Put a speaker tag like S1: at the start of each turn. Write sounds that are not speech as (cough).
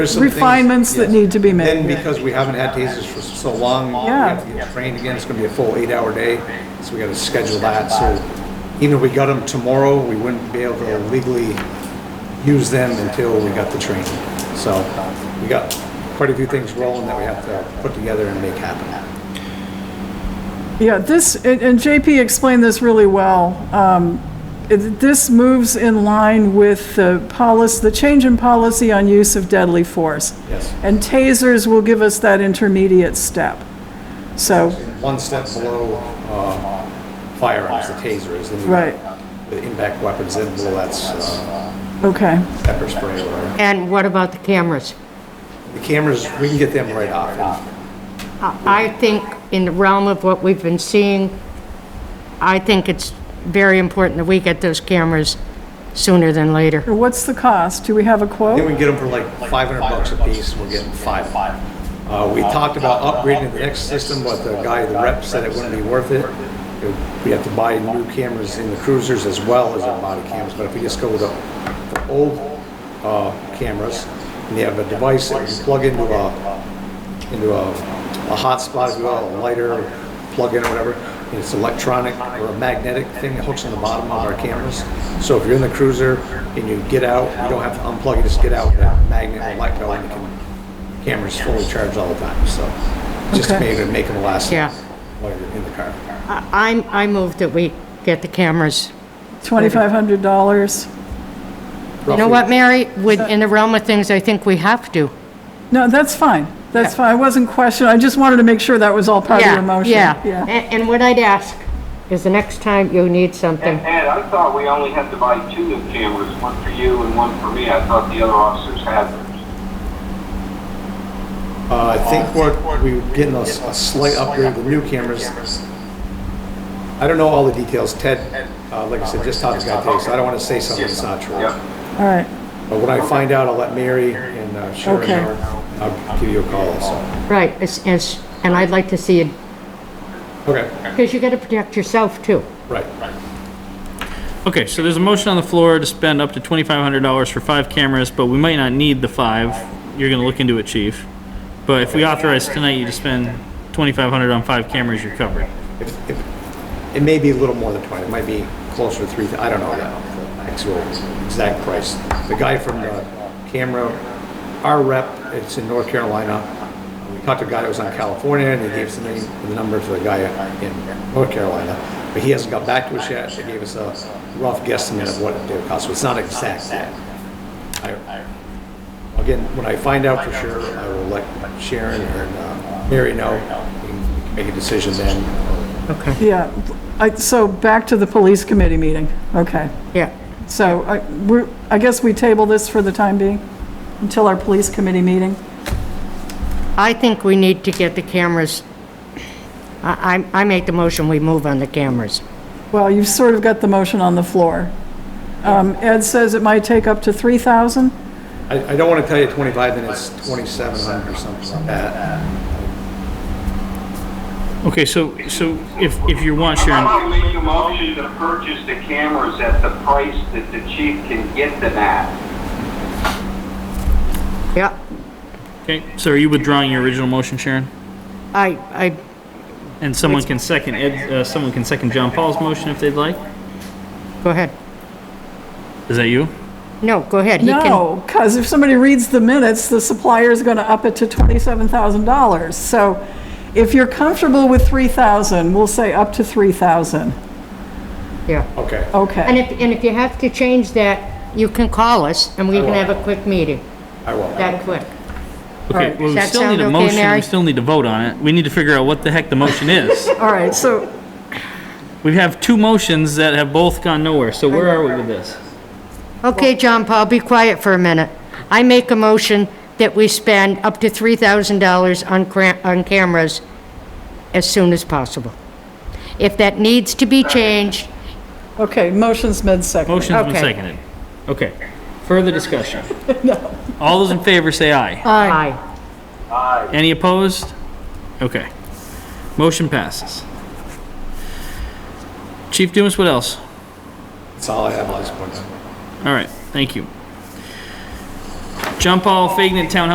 S1: There's some things-
S2: refinements that
S1: yes.
S2: need to be made.
S1: And because we haven't had tasers for so long, we
S2: Yeah.
S1: have to get trained again, it's gonna be a full eight-hour day, so we gotta schedule that, so even if we got them tomorrow, we wouldn't be able to legally use them until we got the training. So, we got quite a few things rolling that we have to put together and make happen.
S2: Yeah, this, and and JP explained this really well. Um, it- This moves in line with the policy, the change in policy on use of deadly force.
S1: Yes.
S2: And tasers will give us that intermediate step. So,
S1: One step below, uh, firearms, the tasers, then we-
S2: Right.
S1: the impact weapons, then below that's, uh,
S2: okay,
S1: pepper spray or whatever.
S3: And what about the cameras?
S1: The cameras, we can get them right off.
S3: I I think in the realm of what we've been seeing, I think it's very important that we get those cameras sooner than later.
S2: what's the cost? Do we have a
S1: Then we
S2: quote?
S1: can get them for like 500 bucks a piece, we're getting five. Uh, we talked about upgrading the next system, but the guy, the rep said it wouldn't be worth it. It- We have to buy new cameras in the cruisers as well as our body cameras, but if we just go with the, the old, uh, cameras, and you have a device that you plug into a, into a, a hotspot, if you will, a lighter, plug in or whatever, and it's electronic or a magnetic thing that hooks on the bottom of our cameras. So if you're in the cruiser and you get out, you don't have to unplug it, just get out, that magnet will light go and you can, camera's fully charged all the time, so. Just
S2: Okay.
S1: maybe make them last
S3: Yeah.
S1: while you're in the car.
S3: I, I'm- I move that we get the cameras.
S2: $2,500?
S3: You know what, Mary? With, in the realm of things, I think we have to.
S2: No, that's fine. That's fine. I wasn't questioning. I just wanted to make sure that was all part of your motion.
S3: Yeah, yeah. And and what I'd ask is the next time you need something,
S4: And Ed, I thought we only had to buy two new cameras, one for you and one for me. I thought the other officers had theirs.
S1: Uh, I think what, we are getting a s- a slight upgrade with new cameras. I don't know all the details, Ted, uh, like I said, just talked to the guy today, so I don't wanna say something that's not true.
S4: Yep.
S2: All right.
S1: But when I find out, I'll let Mary and uh, Sharon
S2: Okay.
S1: know. I'll give you a call also.
S3: right, it's- it's- and I'd like to see it,
S1: Okay,
S3: because you got to protect yourself, too.
S1: right.
S5: Okay, so there's a motion on the floor to spend up to twenty-five hundred dollars for five cameras, but we might not need the five. You're gonna look into it, chief. But if we authorize tonight you to spend twenty-five hundred on five cameras, you're covered.
S1: If- if- It may be a little more than 20, it might be closer to 3, I don't know that, the actual exact price. The guy from the camera, our rep, it's in North Carolina. We talked to a guy that was on California, and they gave us the name, the number for the guy in North Carolina. But he hasn't got back to us yet, they gave us a rough guesstimate of what it would cost, so it's not exact yet. I- Again, when I find out for sure, I will let Sharon or uh, Mary know, We can make a decision then,
S3: Okay,
S2: Yeah. I- So back to the police committee meeting. Okay.
S3: yeah.
S2: So I, we're, I guess we table this for the time being, until our police committee meeting?
S3: I think we need to get the cameras, I, I- I make the motion, we move on the cameras.
S2: Well, you've sort of got the motion on the floor. Um, Ed says it might take up to 3,000?
S1: I, I don't want to tell you 25, then it's 2,700 or something like that.
S5: Okay, so, so if, if you want, Sharon,
S4: I'll make a motion to purchase the cameras at the price that the chief can get them at.
S3: Yeah,
S5: okay, so are you withdrawing your original motion, Sharon?
S3: I, I,
S5: And someone can second Ed, uh, someone can second John Paul's motion if they'd like?
S3: go ahead.
S5: Is that you?
S3: No, go ahead. He can-
S2: No, because if somebody reads the minutes, the supplier's going to up it to $27,000. So if you're comfortable with 3,000, we'll say up to 3,000.
S3: Yeah.
S1: Okay.
S3: And
S2: Okay.
S3: if, and if you have to change that, you can call us and we can have a quick meeting,
S1: I will.
S3: that quick.
S5: Okay, well,
S3: Does
S5: we
S3: that
S5: still
S3: sound
S5: need a
S3: okay,
S5: motion, we
S3: Mary?
S5: still need to vote on it. We need to figure out what the heck the
S3: (laughs)
S5: motion is.
S2: All right, so,
S5: We have two motions that have both gone nowhere, so where are we with this?
S3: Okay, John Paul, be quiet for a minute. I make a motion that we spend up to $3,000 on cra- on cameras as soon as possible. If that needs to be changed,
S2: okay, motion's been seconded.
S5: Motion's been
S3: Okay.
S5: seconded. Okay. Further discussion? All those in favor say aye.
S3: aye.
S5: Any opposed? Okay. Motion passes. Chief Dumas, what else?
S1: That's all I have on this point.
S5: All right, thank you. John Paul Fagin, Town